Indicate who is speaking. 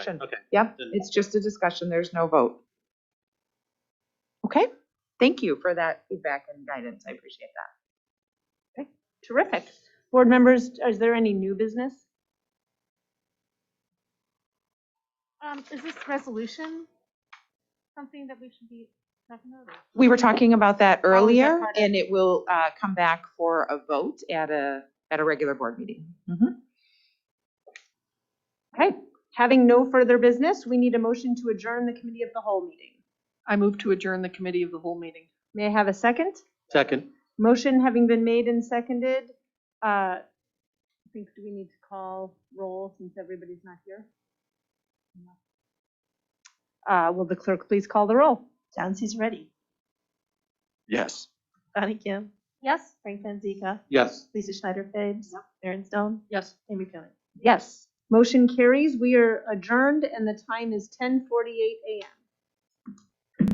Speaker 1: discussion.
Speaker 2: Okay.
Speaker 1: Yep,
Speaker 2: Then-
Speaker 1: it's just a discussion, there's no vote. Okay, thank you for that feedback and guidance, I appreciate that. Okay, terrific.
Speaker 3: Board members, is there any new business?
Speaker 4: Um, is this resolution something that we should be talking about? or-
Speaker 1: We were talking about
Speaker 4: Oh,
Speaker 1: that
Speaker 4: is that
Speaker 1: earlier,
Speaker 4: part of-
Speaker 1: and it will uh, come back for a vote at a, at a regular board meeting. Mhm.
Speaker 3: Okay, having no further business, we need a motion to adjourn the committee of the whole meeting.
Speaker 5: I move to adjourn the committee of the whole meeting.
Speaker 3: May I have a second?
Speaker 2: Second.
Speaker 3: Motion having been made and seconded, uh, I think, do we need to call roll since everybody's not here? Uh, will the clerk please call the roll?
Speaker 6: Chauncey's ready.
Speaker 2: Yes.
Speaker 6: Bonnie Kim,
Speaker 3: Yes.
Speaker 6: Frank Panzeca,
Speaker 2: Yes.
Speaker 6: Lisa Schneider Fabes, Aaron Stone,
Speaker 5: Yes.
Speaker 6: Amy Kelly.
Speaker 3: Yes. Motion carries. We are adjourned and the time is ten forty-eight AM.